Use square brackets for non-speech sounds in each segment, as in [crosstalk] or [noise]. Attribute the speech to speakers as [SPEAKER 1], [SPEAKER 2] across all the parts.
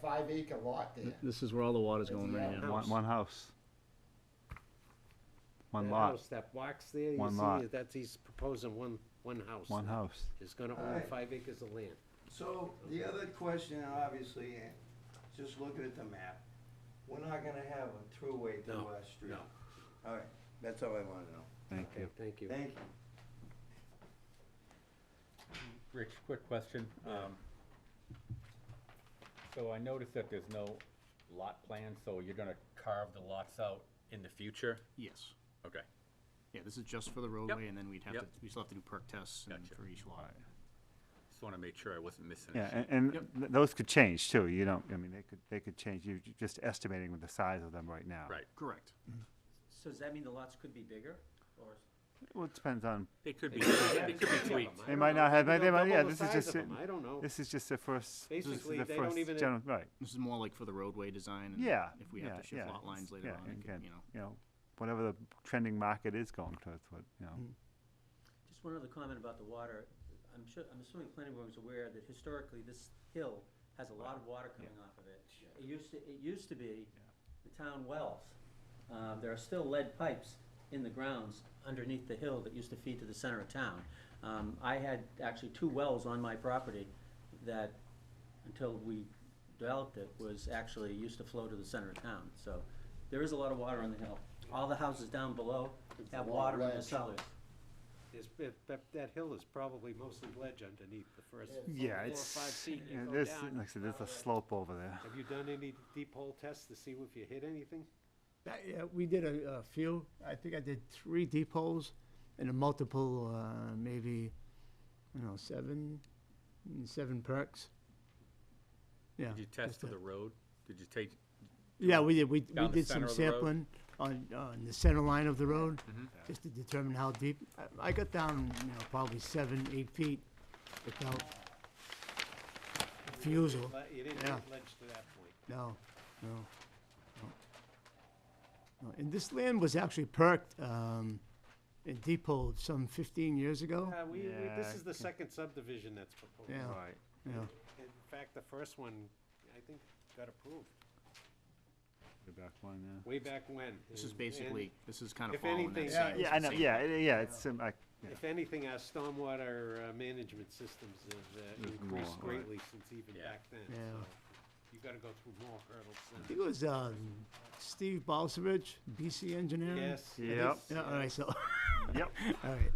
[SPEAKER 1] five acre lot there.
[SPEAKER 2] This is where all the water's
[SPEAKER 1] That's
[SPEAKER 2] going
[SPEAKER 1] the
[SPEAKER 2] right
[SPEAKER 1] other
[SPEAKER 2] now.
[SPEAKER 3] One,
[SPEAKER 4] House.
[SPEAKER 3] one house. One
[SPEAKER 4] That
[SPEAKER 3] lot,
[SPEAKER 4] house, That box there, you
[SPEAKER 3] One lot.
[SPEAKER 4] see, that's, he's proposing one, one house.
[SPEAKER 3] one house.
[SPEAKER 4] Is gonna
[SPEAKER 5] All
[SPEAKER 4] own
[SPEAKER 5] right.
[SPEAKER 4] five acres of land.
[SPEAKER 5] So, the other question, obviously, eh, just looking at the map, we're not gonna have a throughway to
[SPEAKER 4] No,
[SPEAKER 5] West Street.
[SPEAKER 4] no.
[SPEAKER 5] All right, that's all I wanna know.
[SPEAKER 3] Thank
[SPEAKER 4] Okay, Thank you.
[SPEAKER 5] Thank you.
[SPEAKER 6] Rich, quick question. Um, So I noticed that there's no lot plan, so you're gonna carve the lots out in the future?
[SPEAKER 2] Yes.
[SPEAKER 6] Okay.
[SPEAKER 2] Yeah, this is just for the roadway, and then we'd have to,
[SPEAKER 6] Yep.
[SPEAKER 2] we still have to do perk tests and
[SPEAKER 6] Gotcha.
[SPEAKER 2] for each lot.
[SPEAKER 6] Just wanna make sure I wasn't missing
[SPEAKER 3] Yeah,
[SPEAKER 6] anything.
[SPEAKER 3] and, and th- those could change too, you don't, I mean, they could, they could change, you're ju- just estimating with the size of them right now.
[SPEAKER 6] Right.
[SPEAKER 2] Correct.
[SPEAKER 7] So does that mean the lots could be bigger, or?
[SPEAKER 3] Well, it depends on,
[SPEAKER 6] It could be, it could be tweaked.
[SPEAKER 3] they might not have,
[SPEAKER 4] Maybe
[SPEAKER 3] they
[SPEAKER 4] they'll
[SPEAKER 3] might, yeah,
[SPEAKER 4] double the
[SPEAKER 3] this is
[SPEAKER 4] size
[SPEAKER 3] just,
[SPEAKER 4] of 'em,
[SPEAKER 3] it-
[SPEAKER 4] I don't know.
[SPEAKER 3] this is just the first, this is
[SPEAKER 4] Basically,
[SPEAKER 3] the
[SPEAKER 4] they don't
[SPEAKER 3] first
[SPEAKER 4] even-
[SPEAKER 3] general, right,
[SPEAKER 2] This is more like for the roadway design, and
[SPEAKER 3] yeah,
[SPEAKER 2] Mm. if we
[SPEAKER 3] yeah,
[SPEAKER 2] have to shift
[SPEAKER 3] yeah.
[SPEAKER 2] lot lines later
[SPEAKER 3] yeah,
[SPEAKER 2] on, it could,
[SPEAKER 3] again,
[SPEAKER 2] you know.
[SPEAKER 3] You know, whatever the trending market is going towards, what, you
[SPEAKER 4] Mm.
[SPEAKER 3] know.
[SPEAKER 7] Just one other comment about the water. I'm sure, I'm assuming the planning board was aware that historically this hill has a lot of water coming off of it. It used to, it used to be the town wells. Uh, there are still lead pipes in the grounds underneath the hill that used to feed to the center of town. Um, I had actually two wells on my property that, until we developed it, was actually, used to flow to the center of town. So there is a lot of water on the hill. All the houses down below
[SPEAKER 1] It's a
[SPEAKER 7] have
[SPEAKER 1] long
[SPEAKER 7] water in the
[SPEAKER 1] ledge.
[SPEAKER 7] cellars.
[SPEAKER 4] It's- that- that, that hill is probably mostly ledge underneath the first
[SPEAKER 1] Yeah, it's
[SPEAKER 4] four
[SPEAKER 3] Yeah,
[SPEAKER 4] or
[SPEAKER 3] it's,
[SPEAKER 4] five feet
[SPEAKER 3] yeah,
[SPEAKER 4] you go
[SPEAKER 3] there's,
[SPEAKER 4] down.
[SPEAKER 3] like I said, there's a slope over there.
[SPEAKER 4] Have you done any deep hole tests to see if you hit anything?
[SPEAKER 8] That, yeah, we did a, a few. I think I did three deep holes and a multiple, uh, maybe, you know, seven, mm, seven perks. Yeah.
[SPEAKER 6] Did you
[SPEAKER 8] just
[SPEAKER 6] test for
[SPEAKER 8] that.
[SPEAKER 6] the road? Did you take,
[SPEAKER 8] Yeah, we did. We, we
[SPEAKER 6] down the
[SPEAKER 8] did some
[SPEAKER 6] center of the road? Mm-hmm.
[SPEAKER 8] sampling on, on the center line of the road, just to determine how deep. I, I got down, you know, probably seven, eight feet without refusal.
[SPEAKER 4] Le- You didn't
[SPEAKER 8] Yeah.
[SPEAKER 4] hit ledge to that point.
[SPEAKER 8] No, no, no. No, And this land was actually perked, um, and depoted some fifteen years ago.
[SPEAKER 4] Uh, we, we- this
[SPEAKER 3] Yeah,
[SPEAKER 4] is the
[SPEAKER 3] okay.
[SPEAKER 4] second subdivision that's proposed.
[SPEAKER 8] Yeah.
[SPEAKER 3] Right.
[SPEAKER 8] Yeah,
[SPEAKER 4] In fact, the first one, I think, got approved
[SPEAKER 3] Go back one, yeah.
[SPEAKER 4] way back when.
[SPEAKER 2] This is
[SPEAKER 4] and- and
[SPEAKER 2] basically, this is kind of
[SPEAKER 4] if
[SPEAKER 2] following that
[SPEAKER 4] anything-
[SPEAKER 2] same.
[SPEAKER 3] Yeah, I know,
[SPEAKER 2] same-
[SPEAKER 3] yeah, it- yeah, it's, sim- I, yeah.
[SPEAKER 4] If anything, our stormwater uh, management systems have uh,
[SPEAKER 3] There's more,
[SPEAKER 4] increased
[SPEAKER 3] right.
[SPEAKER 4] greatly since even
[SPEAKER 6] Yeah.
[SPEAKER 4] back then.
[SPEAKER 8] Yeah.
[SPEAKER 4] so You gotta go through more
[SPEAKER 8] I
[SPEAKER 4] hurdles
[SPEAKER 8] think it was, um, Steve Balsavich, BC
[SPEAKER 4] than,
[SPEAKER 8] engineering.
[SPEAKER 4] yes. it
[SPEAKER 3] Yep.
[SPEAKER 4] is,
[SPEAKER 8] Yeah, all right, so, [laughs]
[SPEAKER 3] yep,
[SPEAKER 8] all right,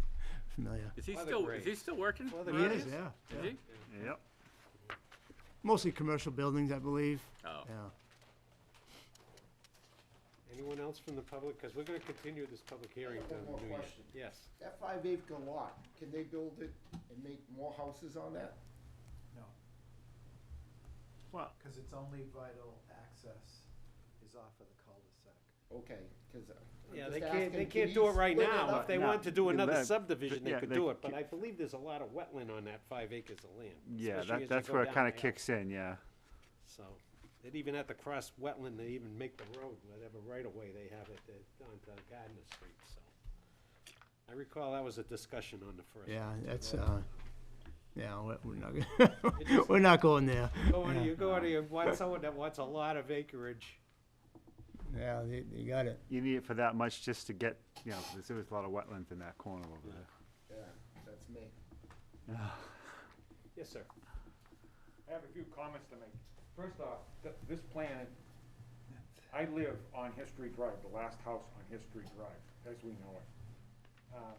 [SPEAKER 8] familiar.
[SPEAKER 6] is he
[SPEAKER 4] Other
[SPEAKER 6] still, is he
[SPEAKER 4] grades.
[SPEAKER 6] still working?
[SPEAKER 4] Other
[SPEAKER 6] around
[SPEAKER 4] grades.
[SPEAKER 6] here?
[SPEAKER 8] Yeah,
[SPEAKER 6] Is
[SPEAKER 8] yeah.
[SPEAKER 6] he?
[SPEAKER 3] yep.
[SPEAKER 8] Mostly commercial buildings, I believe,
[SPEAKER 6] Oh,
[SPEAKER 8] yeah.
[SPEAKER 4] Anyone else from the public? Because we're gonna continue this public hearing
[SPEAKER 1] have
[SPEAKER 4] to
[SPEAKER 1] one more
[SPEAKER 4] New Year.
[SPEAKER 1] question.
[SPEAKER 4] Yes.
[SPEAKER 1] That five acre lot, can they build it and make more houses on that?
[SPEAKER 3] Well,
[SPEAKER 9] Because its only vital access is off of the cul-de-sac.
[SPEAKER 1] Okay, uh, because.
[SPEAKER 4] Yeah, they can't, they can't do it right now. If they
[SPEAKER 3] No,
[SPEAKER 4] want to do
[SPEAKER 3] you
[SPEAKER 4] another
[SPEAKER 3] let-
[SPEAKER 4] subdivision, they
[SPEAKER 3] yeah,
[SPEAKER 4] could
[SPEAKER 3] they
[SPEAKER 4] do it, but
[SPEAKER 3] ca-
[SPEAKER 4] I believe there's a lot of wetland on that five acres of land.
[SPEAKER 3] yeah,
[SPEAKER 4] especially as you
[SPEAKER 3] that, that's
[SPEAKER 4] go
[SPEAKER 3] where it
[SPEAKER 4] down
[SPEAKER 3] kinda
[SPEAKER 4] the hill.
[SPEAKER 3] kicks in, yeah.
[SPEAKER 4] So, they'd even have to cross wetland to even make the road, whatever right of way they have it at- onto Gardner Street, so. I recall that was a discussion on the first.
[SPEAKER 8] Yeah,
[SPEAKER 4] one.
[SPEAKER 8] that's, uh, yeah, we're, we're not, [laughs] we're not going there.
[SPEAKER 4] Go on,
[SPEAKER 8] yeah.
[SPEAKER 4] you go on, you want someone that wants a lot of acreage,
[SPEAKER 8] Yeah, you, you got it.
[SPEAKER 3] You need it for that much just to get, you know, 'cause there was a lot of wetlands in that corner over there.
[SPEAKER 1] Yeah, that's me.
[SPEAKER 4] yes, sir.
[SPEAKER 10] I have a few comments to make. First off, th- this plan, I live on History Drive, the last house on History Drive, as we know it. Um,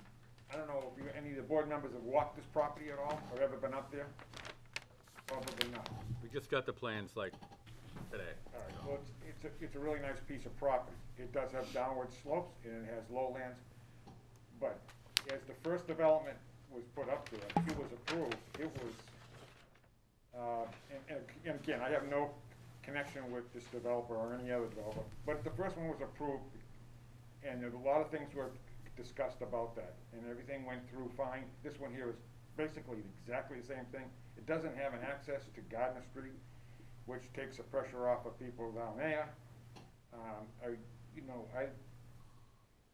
[SPEAKER 10] I don't know if you, any of the board members have walked this property at all, or ever been up there? Probably not.
[SPEAKER 6] we just got the plans like today.
[SPEAKER 10] All right, well, it's, it's a, it's a really nice piece of property. It does have downward slopes and it has lowlands. But as the first development was put up there, it was approved, it was, uh, and, and ag- and again, I have no connection with this developer or any other developer, but the first one was approved and there were a lot of things were discussed about that and everything went through fine. This one here is basically exactly the same thing. It doesn't have an access to Gardner Street which takes the pressure off of people down there. Um, I, you know, I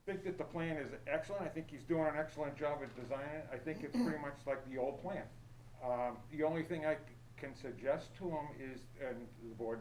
[SPEAKER 10] think that the plan is excellent, I think he's doing an excellent job at designing it, I think it's pretty much like the old plan. Um, the only thing I c- can suggest to him is, and the board